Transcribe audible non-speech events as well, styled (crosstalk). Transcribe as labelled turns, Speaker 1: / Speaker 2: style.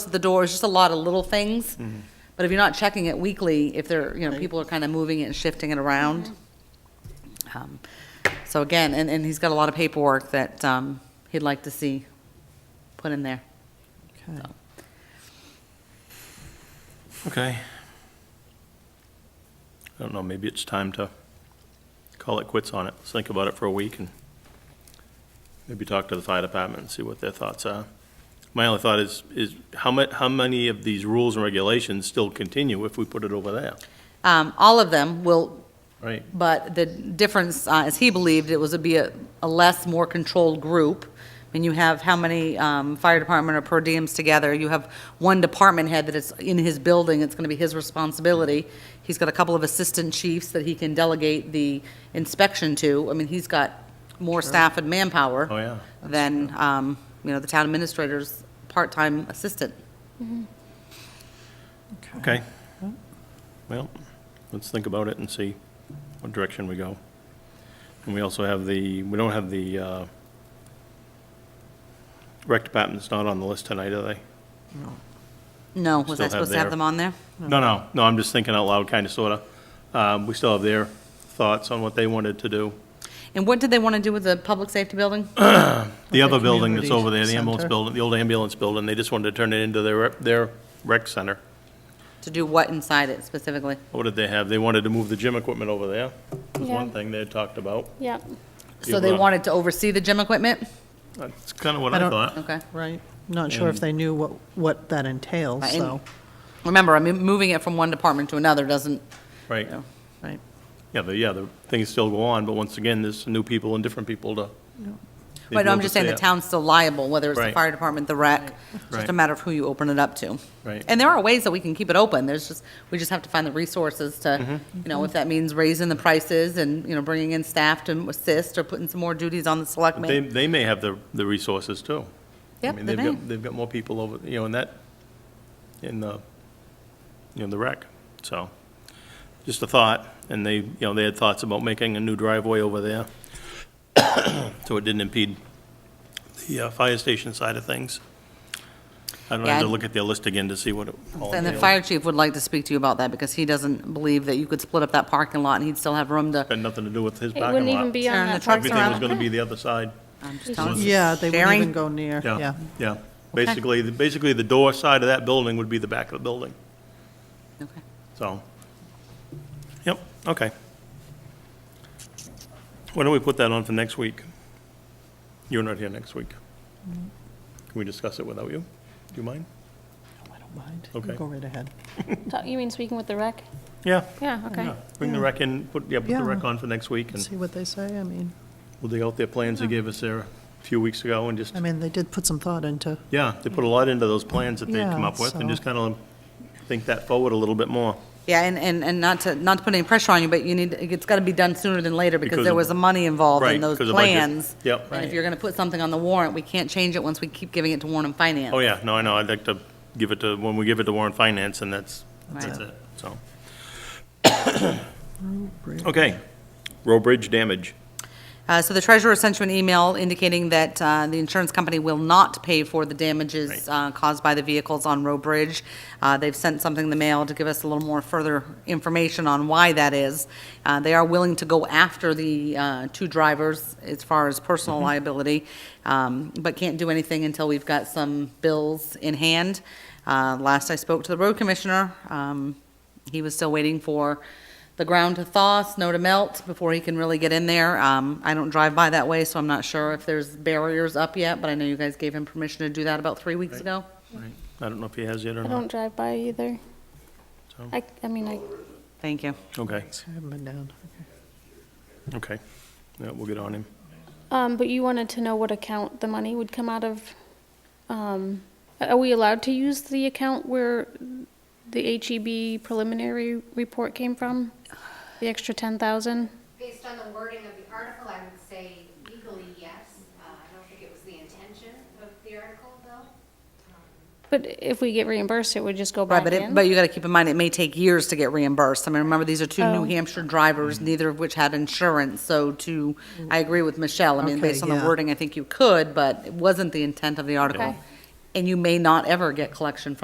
Speaker 1: the doors, just a lot of little things. But if you're not checking it weekly, if they're, you know, people are kind of moving it and shifting it around. Um, So again, and, and he's got a lot of paperwork that um, he'd like to see put in there.
Speaker 2: Okay.
Speaker 3: Okay. I don't know, maybe it's time to call it quits on it. Let's think about it for a week and maybe talk to the fire department and see what their thoughts are. My only thought is, is how mu, how many of these rules and regulations still continue if we put it over there?
Speaker 1: Um, All of them will,
Speaker 3: Right.
Speaker 1: But the difference, uh, as he believed, it was to be a, a less, more controlled group. When you have how many um, fire department or per diems together, you have one department head that is in his building, it's going to be his responsibility. He's got a couple of assistant chiefs that he can delegate the inspection to. I mean, he's got more staff and manpower.
Speaker 3: Oh, yeah.
Speaker 1: Than, um, you know, the town administrator's part-time assistant.
Speaker 3: Okay. Well, let's think about it and see what direction we go. And we also have the, we don't have the, uh, rec department's not on the list tonight, are they?
Speaker 1: No, was I
Speaker 3: Still have
Speaker 1: supposed to have
Speaker 3: their-
Speaker 1: them on there?
Speaker 3: No, no, no, I'm just thinking out loud, kind of, sort of. We still have their thoughts on what they wanted to do.
Speaker 1: And what did they want to do with the public safety
Speaker 3: (coughs)
Speaker 1: building?
Speaker 3: The
Speaker 2: Okay,
Speaker 3: other building that's
Speaker 2: community
Speaker 3: over there, the ambulance
Speaker 2: center.
Speaker 3: building, the old ambulance building, they just wanted to turn it into their, rep- their rec center.
Speaker 1: To do what inside it specifically?
Speaker 3: What did they have? They wanted to move the gym equipment over there, was one
Speaker 4: Yeah.
Speaker 3: thing they had talked about.
Speaker 4: Yep.
Speaker 1: So they
Speaker 3: Yeah.
Speaker 1: wanted to oversee the gym equipment?
Speaker 3: That's kind of what
Speaker 2: I
Speaker 3: I
Speaker 2: don't-
Speaker 3: thought.
Speaker 1: Okay.
Speaker 2: Right, not sure if
Speaker 3: And-
Speaker 2: they knew what, what that entails,
Speaker 1: Right, and-
Speaker 2: so,
Speaker 1: Remember, I mean, moving it from one department to another doesn't,
Speaker 3: Right.
Speaker 1: you know,
Speaker 2: right.
Speaker 3: Yeah, the, yeah, the things still go on, but once again, there's new people and different people to. they
Speaker 1: but
Speaker 3: do
Speaker 1: I'm
Speaker 3: have
Speaker 1: just
Speaker 3: to
Speaker 1: saying the
Speaker 3: stay up.
Speaker 1: town's still liable, whether it's the
Speaker 3: Right.
Speaker 1: fire department, the rec, it's just a
Speaker 3: Right.
Speaker 1: matter of who you open it up to.
Speaker 3: Right.
Speaker 1: And there are ways that we can keep it open, there's just, we just have to find the resources
Speaker 3: Mm-hmm.
Speaker 1: to, you know, if that means raising the prices and, you know, bringing in staff to assist or putting some more duties on the
Speaker 3: But They,
Speaker 1: selectmen.
Speaker 3: they may have the, the resources too. I
Speaker 1: Yep,
Speaker 3: mean,
Speaker 1: they
Speaker 3: they've got-
Speaker 1: may.
Speaker 3: They've got more people over, you know, in that, in the, in the rec, so, just a thought, and they, you know, they had thoughts about making a new driveway over there, (coughs) so it didn't impede the uh, fire station side of things. I don't know, I have to
Speaker 1: Yeah, I-
Speaker 3: look at their list again to see what it all
Speaker 1: And the
Speaker 3: entails.
Speaker 1: fire chief would like to speak to you about that, because he doesn't believe that you could split up that parking lot and he'd still have room to,
Speaker 3: Had nothing to do with his
Speaker 4: It
Speaker 3: parking lot.
Speaker 4: wouldn't even be
Speaker 1: Turn
Speaker 4: on
Speaker 1: the
Speaker 4: that
Speaker 1: trucks
Speaker 4: parking
Speaker 3: Everything was
Speaker 4: lot.
Speaker 3: gonna be the other side.
Speaker 1: I'm just telling you.
Speaker 2: Yeah, they wouldn't
Speaker 1: Sharing?
Speaker 2: even go near, yeah.
Speaker 3: Yeah, basically, the- basically, the door side of that building would be the back of the building.
Speaker 1: Okay.
Speaker 3: So, yep, okay. Why don't we put that on for next week? You're not here next week. Can we discuss it without you? Do you mind?
Speaker 2: I don't mind,
Speaker 3: Okay.
Speaker 2: go right ahead.
Speaker 4: Ta- You mean speaking with the rec?
Speaker 3: Yeah.
Speaker 4: Yeah, okay.
Speaker 3: yeah. Bring the rec in, put, yeah, put the rec on for next week, and
Speaker 2: See what they say, I mean,
Speaker 3: we'll dig out their plans they gave us there a few weeks ago, and just,
Speaker 2: I mean, they did put some thought into,
Speaker 3: yeah, they put a lot into those plans that they'd come
Speaker 2: Yeah,
Speaker 3: up with, and
Speaker 2: so-
Speaker 3: just kind of think that forward a little bit more.
Speaker 1: Yeah, and, and, and not to, not to put any pressure on you, but you need, it's gotta be done sooner than later, because
Speaker 3: Because
Speaker 1: there
Speaker 3: of-
Speaker 1: was a money involved in
Speaker 3: Right,
Speaker 1: those
Speaker 3: because of budget.
Speaker 1: plans.
Speaker 3: Yep.
Speaker 1: And if
Speaker 3: Right.
Speaker 1: you're gonna put something on the warrant, we can't change it once we keep giving it to Warren and Finance.
Speaker 3: Oh, yeah, no, I know, I'd like to give it to, when we give it to Warren Finance, and that's, that's
Speaker 1: Right.
Speaker 3: it, so.
Speaker 2: bridge.
Speaker 3: Okay, road bridge damage.
Speaker 1: Uh, so the treasurer sent you an email indicating that, uh, the insurance company will not pay for the damages, uh, caused by the vehicles on Row Bridge. Uh, they've sent something in the mail to give us a little more further information on why that is. Uh, they are willing to go after the, uh, two drivers as far as personal liability, um, but can't do anything until we've got some bills in hand. Uh, last I spoke to the road commissioner, um, he was still waiting for the ground to thaw, snow to melt before he can really get in there. Um, I don't drive by that way, so I'm not sure if there's barriers up yet, but I know you guys gave him permission to do that about three weeks ago.
Speaker 3: I don't know if he has yet or
Speaker 4: I
Speaker 3: not.
Speaker 4: don't drive by either.
Speaker 3: So-
Speaker 4: I, I mean, I,
Speaker 1: Thank you.
Speaker 3: Okay,
Speaker 2: I haven't been down, okay.
Speaker 3: okay. Yeah, we'll get on him.
Speaker 4: um, but you wanted to know what account the money would come out of. Um, are we allowed to use the account where the HEB preliminary report came from? The extra ten thousand?
Speaker 5: Based on the wording of the article, I would say legally, yes. Uh, I don't think it was the intention of the article, though.
Speaker 4: But if we get reimbursed, it would just go
Speaker 1: Right,
Speaker 4: back
Speaker 1: but it,
Speaker 4: in?
Speaker 1: but you gotta keep in mind, it may take years to get reimbursed. I mean, remember, these are two New
Speaker 4: Oh.
Speaker 1: Hampshire drivers, neither of which had insurance, so to, I agree with Michelle. I mean,
Speaker 2: Okay,
Speaker 1: based on the
Speaker 2: yeah.
Speaker 1: wording, I think you could, but it wasn't the intent of the article.
Speaker 4: Okay.
Speaker 1: and you may not ever get collection from